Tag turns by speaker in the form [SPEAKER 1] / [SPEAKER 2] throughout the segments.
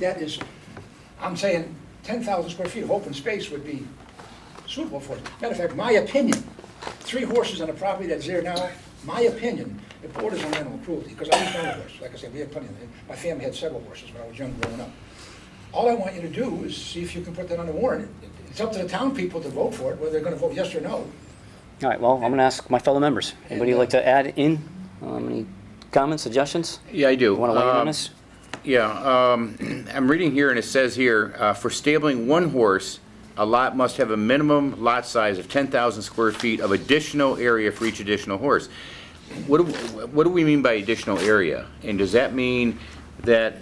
[SPEAKER 1] That is, I'm saying ten thousand square feet of open space would be suitable for it. Matter of fact, my opinion, three horses on a property that's there now, my opinion, it borders on animal cruelty, because I was one of horses. Like I said, we had plenty of them. My family had several horses when I was young growing up. All I want you to do is see if you can put that on the warrant. It's up to the town people to vote for it, whether they're gonna vote yes or no.
[SPEAKER 2] All right, well, I'm going to ask my fellow members. Anybody like to add in? Um, Any comments, suggestions?
[SPEAKER 3] Yeah, I do.
[SPEAKER 2] Want to weigh in on
[SPEAKER 3] Um,
[SPEAKER 2] this?
[SPEAKER 3] Yeah, um, I'm reading here, and it says here, uh, for stabling one horse, a lot must have a minimum lot size of 10,000 square feet of additional area for each additional horse. What do, what do we mean by additional area? And does that mean that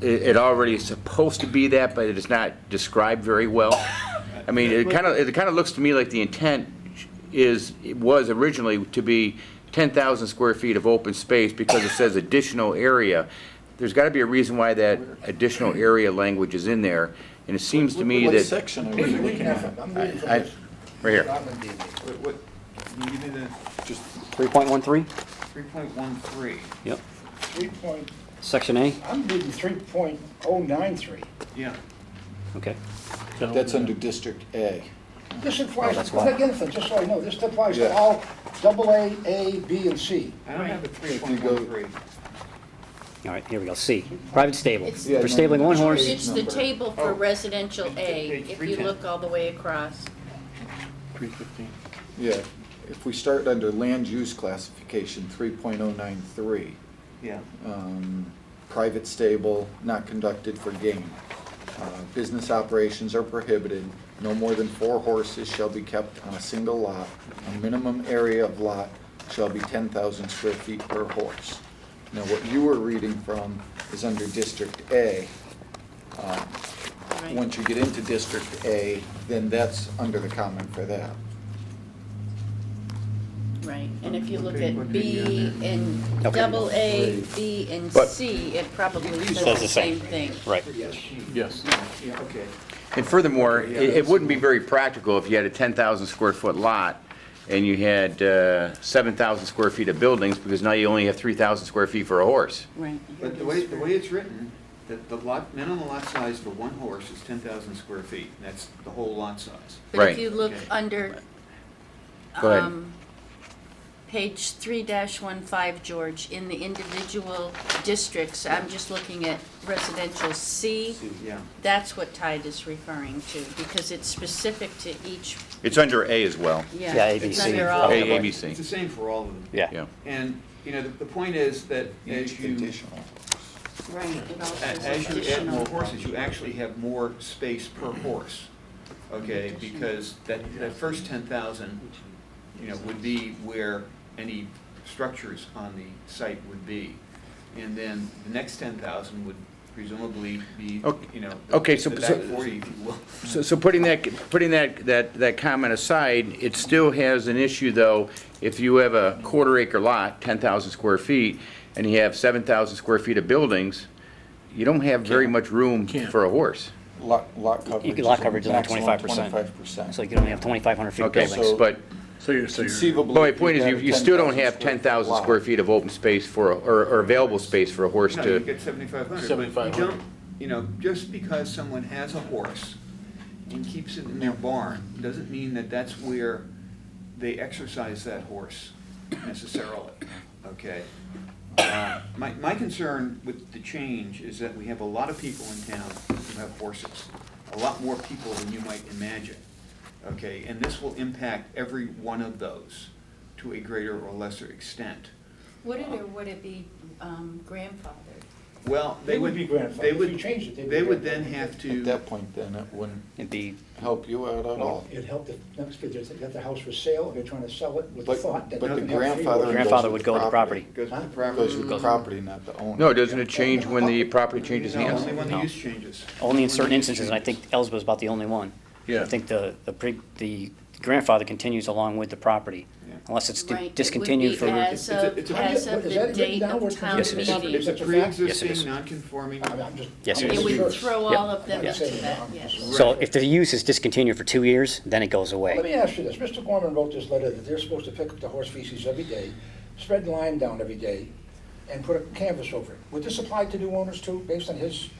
[SPEAKER 3] it it already is supposed to be that, but it is not described very well? I mean, it kind of, it kind of looks to me like the intent is, it was originally to be 10,000 square feet of open space because it says additional area. There's got to be a reason why that additional area language is in there, and it seems to me
[SPEAKER 4] What
[SPEAKER 3] that,
[SPEAKER 4] section are
[SPEAKER 1] I'm
[SPEAKER 4] we
[SPEAKER 1] reading
[SPEAKER 4] looking at?
[SPEAKER 1] from
[SPEAKER 3] I-
[SPEAKER 1] this.
[SPEAKER 3] right here,
[SPEAKER 1] Robin D.
[SPEAKER 4] What, what, can you give me the, just
[SPEAKER 2] 3.13?
[SPEAKER 4] three point one three?
[SPEAKER 2] Yep.
[SPEAKER 1] Three point,
[SPEAKER 2] Section A?
[SPEAKER 1] I'm reading three point oh nine three.
[SPEAKER 4] Yeah.
[SPEAKER 2] Okay.
[SPEAKER 4] That's under District A.
[SPEAKER 1] This applies,
[SPEAKER 2] Oh, that's why.
[SPEAKER 1] again, for- just so I know, this applies to
[SPEAKER 4] Yeah.
[SPEAKER 1] all double A, A, B, and C.
[SPEAKER 4] I don't have a three If you point go- one three.
[SPEAKER 2] All right, here we go. C, private stable.
[SPEAKER 5] It's-
[SPEAKER 4] Yeah,
[SPEAKER 2] For stabling one
[SPEAKER 4] no, no,
[SPEAKER 2] horse,
[SPEAKER 5] It's the
[SPEAKER 4] number.
[SPEAKER 5] table
[SPEAKER 4] Oh.
[SPEAKER 5] for residential A,
[SPEAKER 4] Page
[SPEAKER 5] if you
[SPEAKER 4] 310.
[SPEAKER 5] look all the way across.
[SPEAKER 6] Three fifteen.
[SPEAKER 4] Yeah, if we start under land use classification, three point oh nine three,
[SPEAKER 6] Yeah.
[SPEAKER 4] um, private stable, not conducted for gain. Uh, Business operations are prohibited, no more than four horses shall be kept on a single lot. A minimum area of lot shall be ten thousand square feet per horse. Now, what you were reading from is under District A. Um,
[SPEAKER 5] right?
[SPEAKER 4] Once you get into District A, then that's under the comment for that.
[SPEAKER 5] Right, and if you look
[SPEAKER 6] Okay,
[SPEAKER 5] at
[SPEAKER 6] what do you
[SPEAKER 5] B and
[SPEAKER 2] Okay.
[SPEAKER 5] double A,
[SPEAKER 4] Three.
[SPEAKER 5] B and
[SPEAKER 3] But-
[SPEAKER 5] C, it probably
[SPEAKER 2] Says
[SPEAKER 5] says
[SPEAKER 2] the
[SPEAKER 5] the
[SPEAKER 2] same.
[SPEAKER 5] same thing.
[SPEAKER 2] right.
[SPEAKER 6] Yes.
[SPEAKER 4] Yeah, okay.
[SPEAKER 3] and furthermore, it it wouldn't be very practical if you had a 10,000 square foot lot and you had uh, 7,000 square feet of buildings, because now you only have 3,000 square feet for a horse.
[SPEAKER 5] Right.
[SPEAKER 6] But the way, the way it's written, that the lot, minimum lot size for one horse is ten thousand square feet. That's the whole lot size.
[SPEAKER 5] But
[SPEAKER 3] Right.
[SPEAKER 5] if you look
[SPEAKER 6] Okay.
[SPEAKER 5] under,
[SPEAKER 3] Go ahead.
[SPEAKER 5] um, page three dash one five, George, in the individual districts, I'm just looking at residential C.
[SPEAKER 6] Yeah.
[SPEAKER 5] That's what Tide is referring to, because it's specific to each,
[SPEAKER 3] It's under A as well,
[SPEAKER 2] Yeah,
[SPEAKER 5] yeah,
[SPEAKER 2] A, B,
[SPEAKER 5] it's
[SPEAKER 2] C.
[SPEAKER 5] under all.
[SPEAKER 3] A,
[SPEAKER 5] of
[SPEAKER 2] Okay.
[SPEAKER 5] them.
[SPEAKER 3] A, B,
[SPEAKER 6] It's the
[SPEAKER 3] C,
[SPEAKER 6] same for all of them.
[SPEAKER 2] Yeah.
[SPEAKER 3] yeah.
[SPEAKER 6] And, you know, the, the point is that
[SPEAKER 4] Each
[SPEAKER 6] as you,
[SPEAKER 4] conditional.
[SPEAKER 5] Right, it all
[SPEAKER 6] a-
[SPEAKER 5] says
[SPEAKER 6] as you add more
[SPEAKER 5] additional.
[SPEAKER 6] horses, you actually have more space per horse. Okay, because that, that first ten thousand, you know, would be where any structures on the site would be. And then the next ten thousand would presumably be,
[SPEAKER 3] Okay.
[SPEAKER 6] you know,
[SPEAKER 3] Okay,
[SPEAKER 6] the
[SPEAKER 3] so-
[SPEAKER 6] back
[SPEAKER 3] so-
[SPEAKER 6] forty, if you will.
[SPEAKER 3] So, so putting that, putting that, that, that comment aside, it still has an issue, though, if you have a quarter acre lot, ten thousand square feet, and you have seven thousand square feet of buildings, you don't have very much room for a horse.
[SPEAKER 4] Lot, lot coverage.
[SPEAKER 2] could- lot coverage is only 25%.
[SPEAKER 4] Twenty-five percent.
[SPEAKER 2] So you can only have 2,500 feet of
[SPEAKER 3] Okay,
[SPEAKER 2] buildings.
[SPEAKER 3] but,
[SPEAKER 6] So you're, so
[SPEAKER 4] Conceivably.
[SPEAKER 3] but my point is, you, you still don't
[SPEAKER 4] if
[SPEAKER 3] have ten thousand
[SPEAKER 4] lot.
[SPEAKER 3] square feet of open space for, a- or, or available space for a horse
[SPEAKER 6] No, you
[SPEAKER 3] to,
[SPEAKER 6] get seventy-five hundred.
[SPEAKER 7] 7,500.
[SPEAKER 6] You know, just because someone has a horse and keeps it in their barn, doesn't mean that that's where they exercise that horse necessarily, okay? Uh, My, my concern with the change is that we have a lot of people in town who have horses, a lot more people than you might imagine, okay? And this will impact every one of those to a greater or lesser extent.
[SPEAKER 5] Would it or would it be um, grandfathered?
[SPEAKER 6] Well, they
[SPEAKER 1] They would
[SPEAKER 6] would,
[SPEAKER 1] be grandfathered.
[SPEAKER 6] they
[SPEAKER 1] If
[SPEAKER 6] would,
[SPEAKER 1] you changed it, they'd be
[SPEAKER 6] they would
[SPEAKER 1] grandfathered.
[SPEAKER 6] then have
[SPEAKER 4] At
[SPEAKER 6] to,
[SPEAKER 4] that point, then it wouldn't
[SPEAKER 2] It'd be,
[SPEAKER 4] help you out at all.
[SPEAKER 1] It helped the next bit, they got the house for sale, they're trying to sell it with the
[SPEAKER 4] But-
[SPEAKER 1] thought that.
[SPEAKER 4] but the
[SPEAKER 1] they're gonna have three
[SPEAKER 4] grandfather-
[SPEAKER 1] horses.
[SPEAKER 2] grandfather would go with the property.
[SPEAKER 6] goes with the
[SPEAKER 4] Goes
[SPEAKER 6] property.
[SPEAKER 4] with the property, not the owner.
[SPEAKER 3] no, doesn't it change when the property changes
[SPEAKER 6] No,
[SPEAKER 3] hands?
[SPEAKER 6] only when the
[SPEAKER 2] No.
[SPEAKER 6] use changes.
[SPEAKER 2] Only in certain
[SPEAKER 6] When the use
[SPEAKER 2] instances, and I
[SPEAKER 6] changes.
[SPEAKER 2] think Ellsworth's about the only one.
[SPEAKER 7] Yeah.
[SPEAKER 2] I think the, the pre- the grandfather continues along with the property,
[SPEAKER 6] Yeah.
[SPEAKER 2] unless it's
[SPEAKER 5] Right, it would
[SPEAKER 2] discontinued
[SPEAKER 5] be
[SPEAKER 2] for.
[SPEAKER 5] As
[SPEAKER 6] It's a-
[SPEAKER 5] of,
[SPEAKER 6] it's a-
[SPEAKER 5] as of
[SPEAKER 1] Is that
[SPEAKER 5] the
[SPEAKER 1] written
[SPEAKER 5] date
[SPEAKER 1] down? We're
[SPEAKER 5] of town
[SPEAKER 2] Yes, it is.
[SPEAKER 6] It's
[SPEAKER 5] meeting.
[SPEAKER 6] a
[SPEAKER 1] It's a fact.
[SPEAKER 2] Yes, it is.
[SPEAKER 6] pre-existing, non-conforming,
[SPEAKER 1] I mean, I'm just-
[SPEAKER 2] Yes,
[SPEAKER 1] I'm
[SPEAKER 2] it
[SPEAKER 5] It
[SPEAKER 1] just
[SPEAKER 2] is.
[SPEAKER 5] would
[SPEAKER 1] curious.
[SPEAKER 5] throw
[SPEAKER 2] Yep.
[SPEAKER 5] all of them
[SPEAKER 1] Yeah.
[SPEAKER 5] into that, yes.
[SPEAKER 2] So if the use is discontinued for two years, then it goes away.
[SPEAKER 1] Let me ask you this, Mr. Gorman wrote this letter that they're supposed to pick up the horse feces every day, spread lime down every day, and put a canvas over it. Would this apply to new owners too, based on his